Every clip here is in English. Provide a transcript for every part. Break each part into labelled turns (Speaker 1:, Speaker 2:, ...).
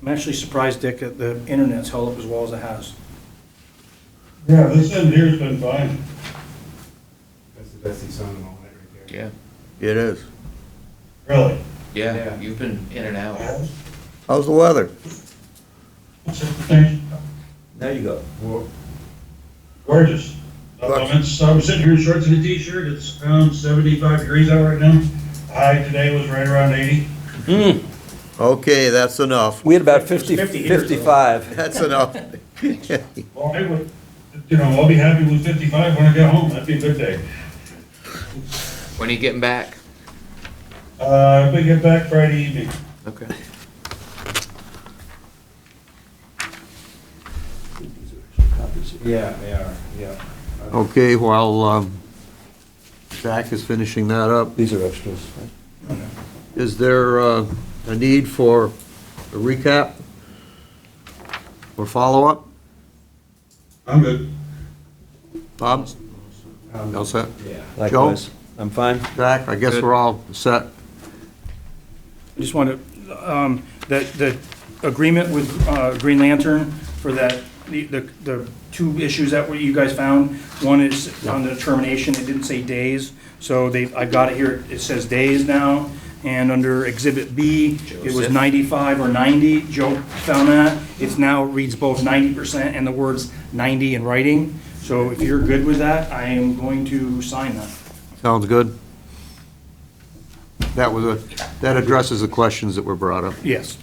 Speaker 1: I'm actually surprised, Dick, that the internet's held up as well as it has.
Speaker 2: Yeah, this end here's been fine.
Speaker 3: That's the best he's on in all that right there.
Speaker 4: Yeah,
Speaker 5: It is.
Speaker 2: Really?
Speaker 4: yeah,
Speaker 3: Yeah.
Speaker 4: you've been in and out.
Speaker 5: How's the weather?
Speaker 2: What's that thing?
Speaker 5: There you go.
Speaker 3: Well,
Speaker 2: Gorgeous. I'm in- so I'm sitting here in shorts and a t-shirt. It's around seventy-five degrees out right now. High today was right around eighty.
Speaker 5: Okay, that's enough.
Speaker 6: We had about 50,
Speaker 1: 50 years ago.
Speaker 6: 55.
Speaker 5: That's enough.
Speaker 2: Well, I would, you know, I'll be happy with fifty-five when I get home. That'd be a good day.
Speaker 4: When are you getting back?
Speaker 2: Uh, if we get back Friday evening.
Speaker 4: Okay.
Speaker 3: yeah, they are, yeah.
Speaker 5: Okay, while um, Zach is finishing that up,
Speaker 6: These are extras.
Speaker 5: is there uh, a need for a recap? Or follow-up?
Speaker 2: I'm good.
Speaker 5: Bob?
Speaker 3: Um,
Speaker 5: All set?
Speaker 3: Yeah.
Speaker 6: Likewise. I'm fine.
Speaker 5: Zach, I guess we're all set.
Speaker 1: I just wanted, um, that, the agreement with, uh, Green Lantern for that, the, the, the two issues that were, you guys found, one is on the termination, it didn't say days, so they, I got it here, it says days now, and under Exhibit B, it was
Speaker 4: Joseph.
Speaker 1: ninety-five or ninety, Joe found that, it's now reads both ninety percent and the words ninety in writing, so if you're good with that, I am going to sign that.
Speaker 5: Sounds good? That was a, that addresses the questions that were brought up.
Speaker 1: Yes.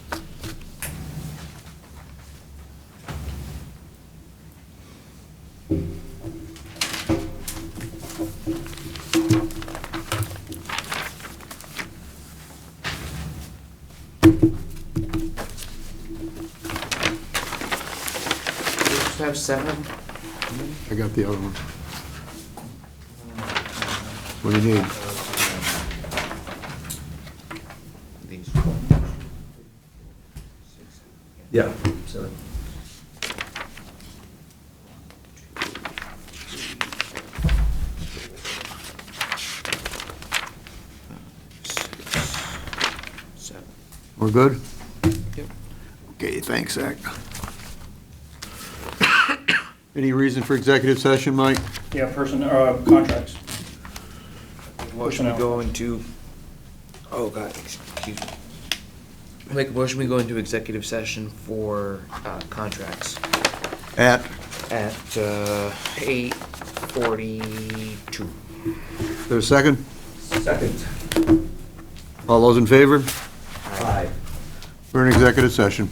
Speaker 4: You just have seven?
Speaker 5: I got the other one. What do you need?
Speaker 4: These.
Speaker 6: Yeah. so-
Speaker 4: Seven.
Speaker 5: We're good?
Speaker 4: Yep.
Speaker 5: Okay, thanks, Zach. Any reason for executive session, Mike?
Speaker 1: Yeah, person, uh, contracts.
Speaker 4: Motion we go into, oh God, excuse me. I Make a motion, we go into executive session for uh, contracts
Speaker 5: At?
Speaker 4: at uh, 8:42.
Speaker 5: There a second?
Speaker 6: Second.
Speaker 5: All those in favor?
Speaker 6: Aye.
Speaker 5: We're in executive session.